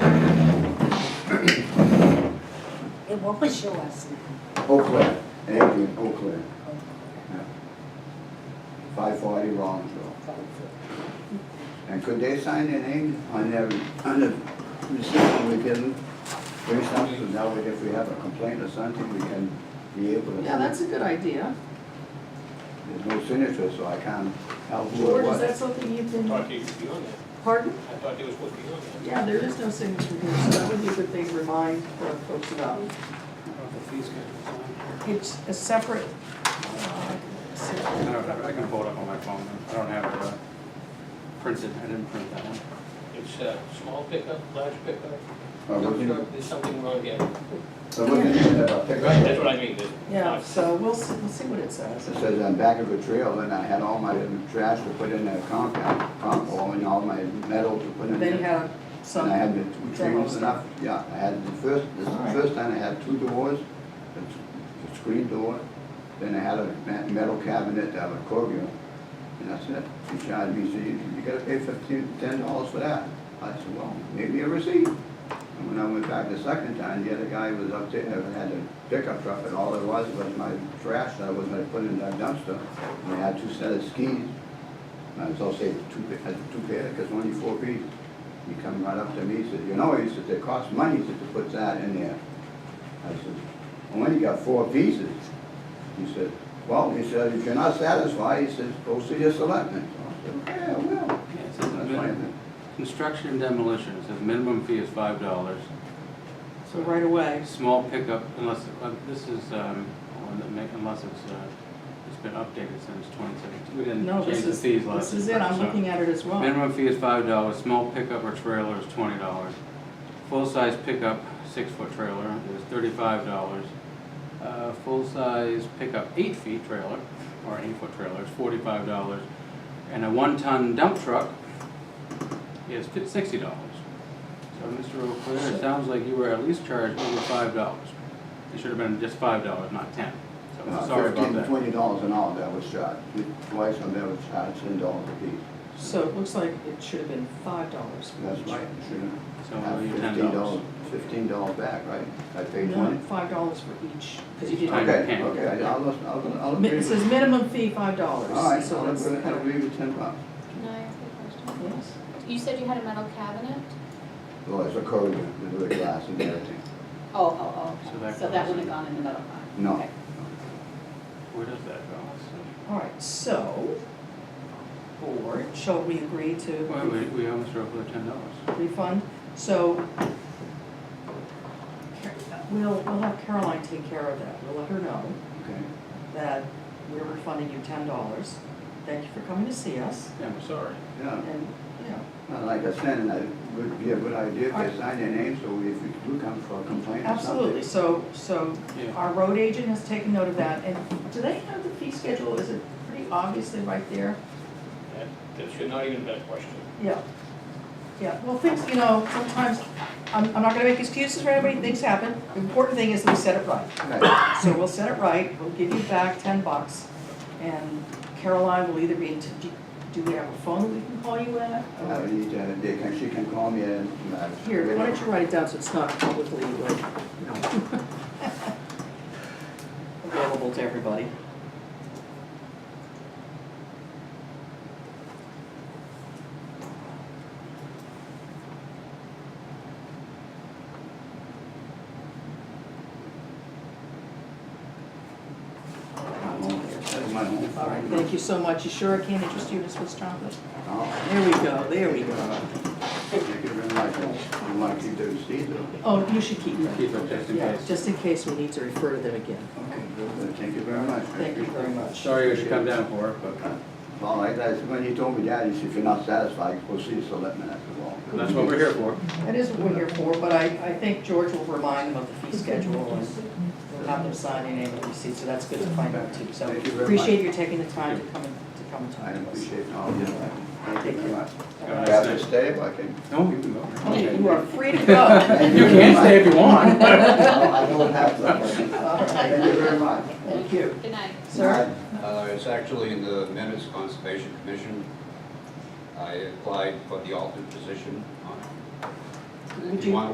It will show us now. Oakland, and Adrian, Oakland, five forty Rollinsville. And could they sign their name on their, on the receipt when we get them? Bring something, so now if we have a complaint or something, we can be able to. Yeah, that's a good idea. There's no signature, so I can't help who it George, is that was. something you've I been, thought they was beyond that. pardon? I thought they was supposed to be on that. Yeah, there is no signature here, so that would be a good thing to remind uh, folks about. It's a separate, uh, I separate- don't have, it. I can pull it up on my phone, I don't have it uh, printed, I didn't print that one. It's a small pickup, large pickup, Uh, dump looking- truck, there's something wrong here. Right, So looking at a that's what pickup, I mean, there's. yeah, so we'll see, we'll see what it says. it says on back of the trail, and I had all my trash to put in that compound, compost, and all my metal to put in. They there. have some. And I had the two demo trees enough, yeah, I had the first, this is the Alright. first time I had two doors, a s- a screen door, then I had a ma- metal cabinet that I would call you, and that's it. He charged me, said, "You- you gotta pay fifteen, ten dollars for that. I said, well, maybe a receipt. And when I went back the second time, the other guy was up there, and had a pickup truck, and all it was was my trash that I was gonna put in that dumpster. And I had two set of skis, and I was also two, pa- I had two pair, because only four feet. He come right up to me, he said, you know, he said, it costs money, he said, to put that in there. I said, well, when you got four pieces, he said, well, he said, if you're not satisfied, he says, go see your selectmen. So I said, okay, I will. Yeah, it says That's fine min- then. Construction and demolition, it says minimum fee is five dollars. So right away, Small pickup unless, uh, this is, um, one that make- unless it's, uh, it's been updated since twenty seventeen. We no, didn't change this the is, fees last. this is it, I'm so- looking at it as well. Minimum fee is five dollars, small pickup or trailer is twenty dollars. Full-size pickup, six-foot trailer is thirty-five dollars. Uh, full-size pickup, eight-feet trailer, or eight-foot trailer is forty-five dollars. And a one-ton dump truck is fif- sixty dollars. So, Mr. O'Clair, it sounds like you were at least charged over five dollars. It should have been just five dollars, not ten. So, I'm Uh, sorry about Fifteen, that. twenty dollars an hour that was charged, twice on that was charged ten dollars a piece. So it looks like it should have been five dollars for That's each. right, you shouldn't So, have you ten fifteen dollars, dollars. fifteen dollars back, right? I paid No, twenty. five dollars for each, because you Time. didn't. Okay, ten. okay, I'll, I'll, I'll Mi- agree. It with- says minimum fee five dollars. All right, So I'll that's agree, I'll agree with ten bucks. Can I ask a question? Yes. You said you had a metal cabinet? Well, it's a code, with the glass and everything. Oh, oh, So oh, that okay. so that goes wouldn't have in. gone in the metal box? No. Okay. Where does that go? So- All right, so, board, shall we agree Well, we, to we almost drove for ten dollars. refund? So, Car- we'll, we'll have Caroline take care of that. We'll let her know Okay. that we're refunding you ten dollars. Thank you for coming to see us, Yeah, we're sorry. Yeah, and, you know, well, like I said, and it would be a good idea if Alright. they sign their name, so if we do come for a complaint or Absolutely, something. so, so Yeah. our road agent has taken note of that, and do they have the fee schedule, is it pretty obviously right there? That, that should not even be a question. Yeah. Yeah, well, things, you know, sometimes, I'm, I'm not gonna make excuses for anybody, things happen, the important thing is that we set it right. Absolutely. So we'll set it right, we'll give you back ten bucks, and Caroline will either be, in t- do- do we have a phone that we can call you at? I Or- need to, uh, they can, she can call me and. uh, Here, why don't you write it down so it's not publicly, like, you know, available to everybody. That's my home. All right, thank you so much. You sure I can't interest you in Swiss chocolate? Oh, There we go, there we go. Thank you very much. You want to keep the receipt though? Oh, you should keep You them. keep it just in Yeah, case. just in case we need to refer to them again. Okay, good, good. Uh, thank you very much. I Thank you very appreciate it. much. Sorry you should come down for it, but Well, like I said, when you told me that, you said, if you're not satisfied, go see the selectmen at the wall. that's what we're here for. That is what we're here for, but I, I think George will remind them of the fee schedule and we'll have them sign your name and receipt, so that's good to find out too. So Thank you very much. appreciate you taking the time to come, and- to come and I talk to us. appreciate all your time. Thank you very much. All Got right. it. Do I have to stay if I can? No, you can go. Okay, Oh, You are free to go. You can stay if you want. No, I don't have to. All right, Thank you very much. Thank you. Good night. Sir? Uh, It's actually in the minutes, Conservation Commission. I applied for the alternate position on it. Would If you- you want